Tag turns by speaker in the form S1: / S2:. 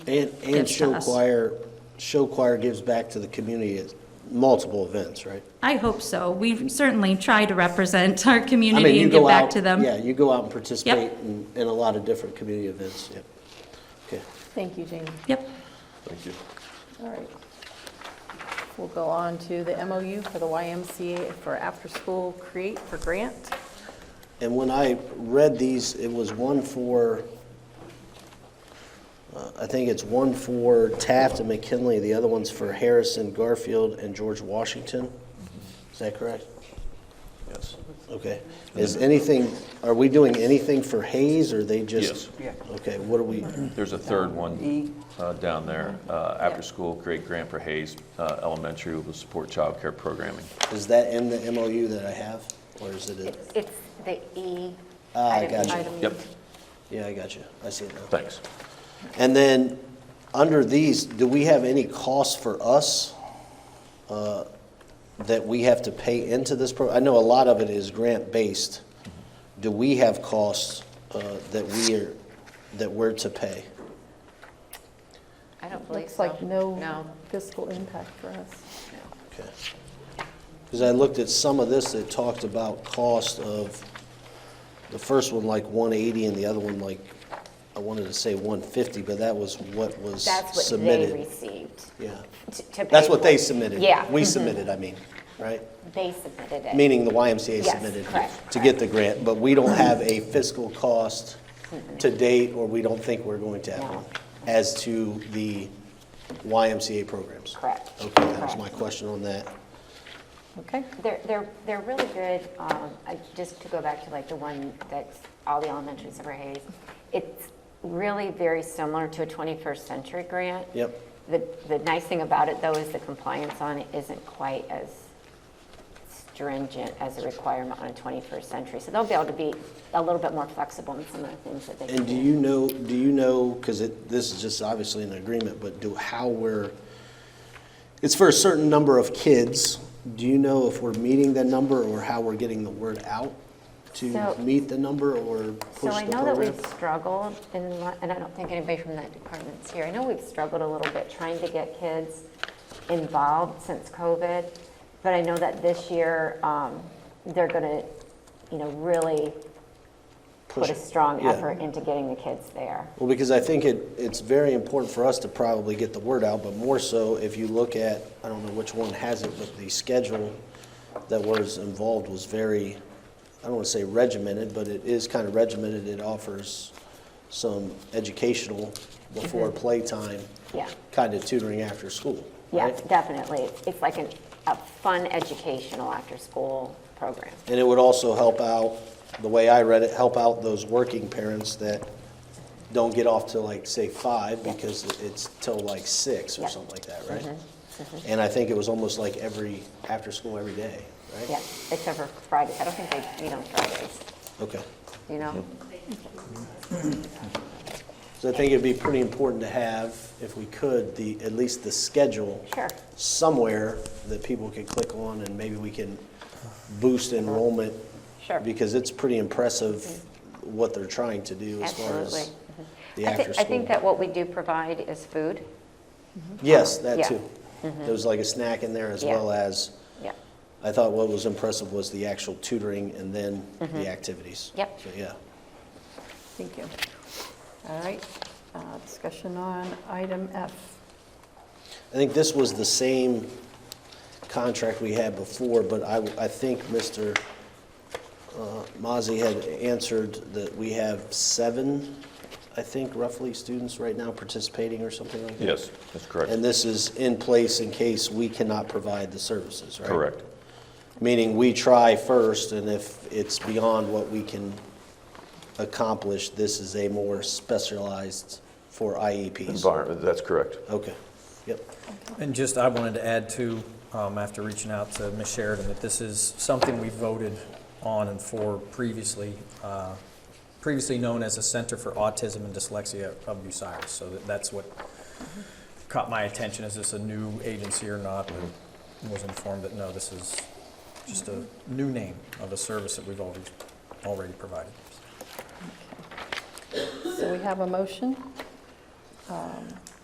S1: And, and
S2: gives to
S1: show
S2: us.
S1: choir, show choir gives back to the community at multiple events, right?
S2: I hope so. We certainly try to represent our
S1: I mean,
S2: community
S1: you
S2: and give
S1: go
S2: back
S1: out-
S2: to them.
S1: Yeah, you go out and participate in, in a lot of different community events, yeah. Okay.
S3: Thank you, Jamie.
S2: Yep.
S4: Thank you.
S3: All right. We'll go on to the MOU for the YMCA for after-school create for grant.
S1: And when I read these, it was one for, uh, I think it's one for Taft and McKinley, the other one's for Harrison, Garfield, and George Washington. Is that correct?
S4: Yes.
S1: Okay. Is anything, are we doing anything for Hayes, or are they just?
S5: Yes.
S1: Okay, what are we,
S4: There's a third
S5: E.
S4: one uh, down there, uh, after school, great grant for Hayes uh, Elementary will support childcare programming.
S1: is that in the MOU that I have, or is it? in-
S6: It's it's the E.
S1: Ah, I
S6: item E.
S1: gotcha.
S3: Item E.
S4: Yep,
S1: Yeah, I got you. I see it now.
S4: thanks.
S1: And then, under these, do we have any costs for us uh, that we have to pay into this program? I know a lot of it is grant-based. Do we have costs uh, that we are, that we're to pay?
S6: I don't believe
S3: Looks
S6: so.
S3: like no
S6: No.
S3: fiscal impact for us.
S1: Because I looked at some of this that talked about cost of, the first one like 180 and the other one like, I wanted to say 150, but that was what was
S6: That's what they
S1: submitted.
S6: received.
S1: Yeah.
S6: to- to
S1: That's
S6: pay
S1: what they
S6: for.
S1: submitted.
S6: Yeah.
S1: We
S6: mhm.
S1: submitted, I mean, right?
S6: They submitted it.
S1: Meaning the YMCA
S6: Yes,
S1: submitted
S6: correct,
S1: to get the grant, but we don't have a fiscal cost to date, or we don't think we're going to have one, as to the YMCA programs.
S6: Correct.
S1: Okay, that was
S6: Correct.
S1: my question on that.
S3: Okay?
S6: They're, they're, they're really good, um, I- just to go back to like the one that's all the elementaries of Hayes. It's really very similar to a 21st century grant.
S1: Yep.
S6: The, the nice thing about it though is the compliance on it isn't quite as stringent as a requirement on a 21st century. So they'll be able to be a little bit more flexible in some of the things that they can
S1: And do you know, do you know, because it, this is just obviously an agreement, but do, how we're, it's for a certain number of kids. Do you know if we're meeting that number or how we're getting the word out to
S6: So-
S1: meet the number or
S6: So
S1: push
S6: I
S1: the
S6: know that
S1: program?
S6: we've struggled, and, lo- and I don't think anybody from that department's here, I know we've struggled a little bit trying to get kids involved since COVID, but I know that this year, um, they're gonna, you know, really
S1: Push
S6: put a
S1: it.
S6: strong
S1: Yeah.
S6: effort into getting the kids there.
S1: Well, because I think it, it's very important for us to probably get the word out, but more so if you look at, I don't know which one has it, but the schedule that was involved was very, I don't want to say regimented, but it is kind of regimented. It offers some educational before playtime.
S6: Mm-hmm. Yeah.
S1: Kind of tutoring after school,
S6: Yeah,
S1: right?
S6: definitely, It's- it's like an, a fun educational after-school program.
S1: And it would also help out, the way I read it, help out those working parents that don't get off till like, say, five because it's till like six or
S6: Yeah. Mm-hmm.
S1: something like that, right? And I think it was almost like every, after school every day, right?
S6: Yeah, except for Fridays, I don't think they meet on Fridays,
S1: Okay.
S6: you know?
S1: So I think it'd be pretty important to have, if we could, the, at least the schedule.
S6: Sure.
S1: Somewhere that people could click on and maybe we can boost enrollment.
S6: Sure.
S1: Because it's pretty impressive what they're trying to do as far
S6: Absolutely.
S1: as the
S6: I thi-
S1: after school.
S6: I think that what we do provide is food.
S1: Yes, that
S6: Yeah. Mm-hmm.
S1: too. There was like a snack in there as
S6: Yeah.
S1: well as,
S6: Yep.
S1: I thought what was impressive was the actual tutoring and then the activities.
S6: Mm-hmm. Yep.
S1: So, yeah.
S3: Thank you. All right, uh, discussion on item F.
S1: I think this was the same contract we had before, but I, I think Mr. uh, Mazi had answered that we have seven, I think roughly, students right now participating or something like that.
S4: Yes, that's correct.
S1: And this is in place in case we cannot provide the services, right?
S4: Correct.
S1: Meaning we try first, and if it's beyond what we can accomplish, this is a more specialized for IEPs.
S4: Environment, that's correct.
S1: Okay, yep.
S7: And just, I wanted to add too, um, after reaching out to Ms. Sheridan, that this is something we voted on and for previously, uh, previously known as a Center for Autism and Dyslexia of Bucyrus. So that- that's what caught my attention, is this a new agency or not? And was informed that no, this is just a new name of a service that we've already, already provided.
S3: So we have a motion. Um,